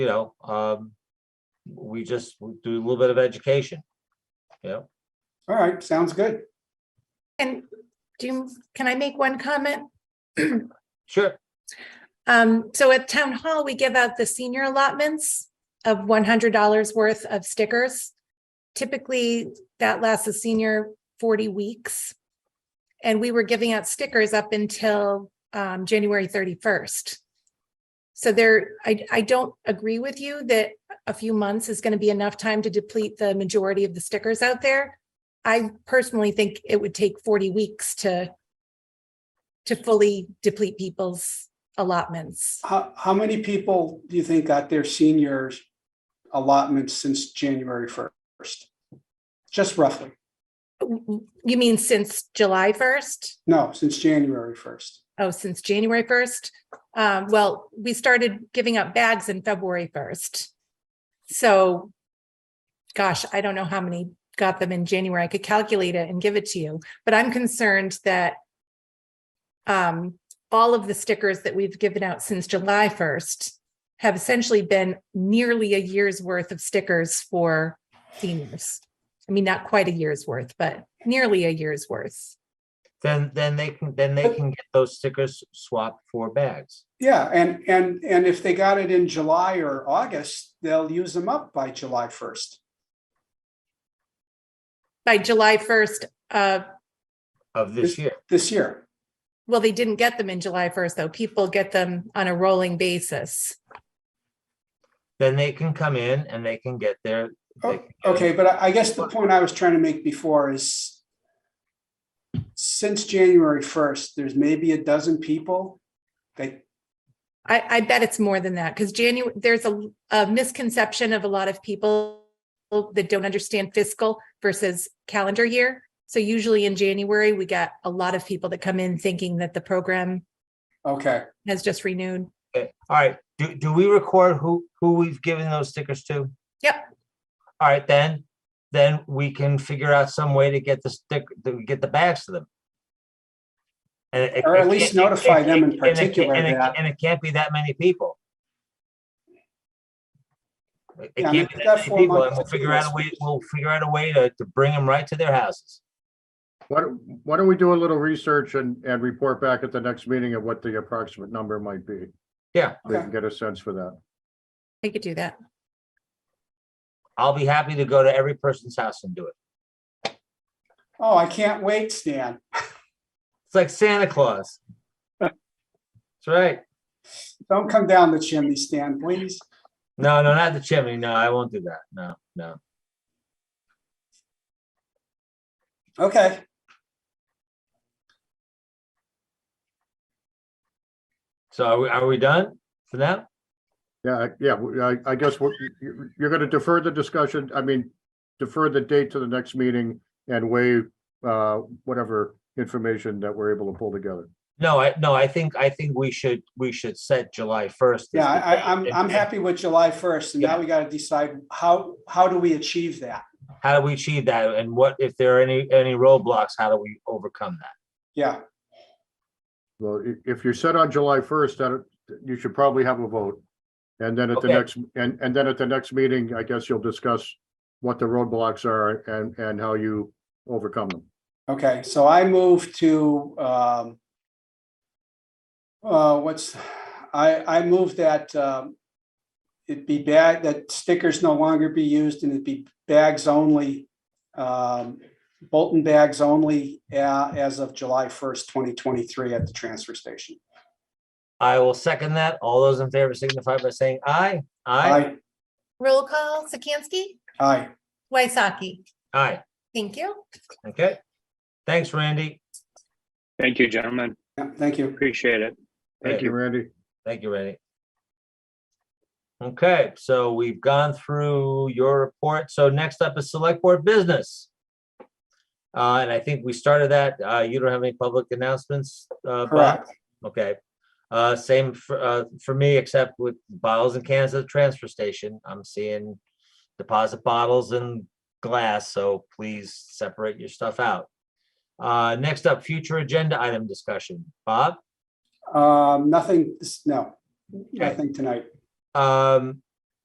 you know, um, we just do a little bit of education. You know, All right, sounds good. And do, you can I make one comment? sure, Um, so at town hall, we give out the senior allotments of one hundred dollars worth of stickers. Typically, that lasts a senior forty weeks. And we were giving out stickers up until um January thirty-first. So there, I I don't agree with you that a few months is going to be enough time to deplete the majority of the stickers out there. I personally think it would take forty weeks to to fully deplete people's allotments. How, how many people do you think got their seniors allotments since January first? Just roughly. You mean since July 1st? No, since January first. Oh, since January 1st? Um, well, we started giving up bags in February 1st. So, gosh, I don't know how many got them in January. I could calculate it and give it to you, but I'm concerned that um, all of the stickers that we've given out since July 1st have essentially been nearly a year's worth of stickers for seniors. I mean, not quite a year's worth, but nearly a year's worth. then, then they can, then they can get those stickers swapped for bags. Yeah, and, and, and if they got it in July or August, they'll use them up by July first. by July first, uh, Of this year, This year. well, they didn't get them in July first, though. People get them on a rolling basis. then they can come in and they can get their. they O- can get- Okay, but I I guess the point I was trying to make before is since January first, there's maybe a dozen people that, I, I bet it's more than that, because January, there's a, a misconception of a lot of people that don't understand fiscal versus calendar year. So usually in January, we got a lot of people that come in thinking that the program okay, has just renewed. Okay, All right, do, do we record who, who we've given those stickers to? Yep. All right, then, then we can figure out some way to get the stick, to get the bags to them. And it- Or at it can't- least it- notify it- them in and it can't- particular and it- that- And it can't be that many people. It- It Yeah, I mean, can't if be that that four many people, months and we'll to do figure out a this, way, we- we'll figure out a way to, to bring them right to their houses. Why don't, why don't we do a little research and, and report back at the next meeting of what the approximate number might be? Yeah. We okay, can get a sense for that. I could do that. I'll be happy to go to every person's house and do it. oh, I can't wait, Stan. It's like Santa Claus. That's right. Don't come down the chimney, Stan, please. No, no, not the chimney. No, I won't do that. No, no. Okay. So are we, are we done for now? Yeah, I- yeah, we- I, I guess we're- you- you're going to defer the discussion, I mean, defer the date to the next meeting and waive uh, whatever information that we're able to pull together. No, I, no, I think, I think we should, we should set July first. Yeah, I, I- I'm, I'm happy with July first, and now we gotta decide how, how do we achieve that? How do we achieve that? And what, if there are any, any roadblocks, how do we overcome that? Yeah, Well, i- if you're set on July 1st, that, you should probably have a vote. And then at the Okay. next, and, and then at the next meeting, I guess you'll discuss what the roadblocks are and, and how you overcome them. okay, so I move to, um, uh, what's, I, I move that, um, it be bag, that stickers no longer be used and it be bags only, um, Bolton bags only, uh, as of July first, twenty twenty-three at the transfer station. I will second that. All those in favor signify by saying aye. Aye. Aye, Roll call, Sikansky, aye, Waisaki. Aye. Thank you. Okay. Thanks, Randy. Thank you, gentlemen. yeah, thank you. Appreciate it. Thank you, Randy. Thank you, Randy. Okay, so we've gone through your report. So next up is select board business. Uh, and I think we started that. Uh, you don't have any public announcements, uh, Bob? Correct. Okay. Uh, same for, uh, for me, except with bottles and cans at the transfer station. I'm seeing deposit bottles and glass, so please separate your stuff out. Uh, next up, future agenda item discussion. Bob? Um, nothing, no, nothing tonight. Um,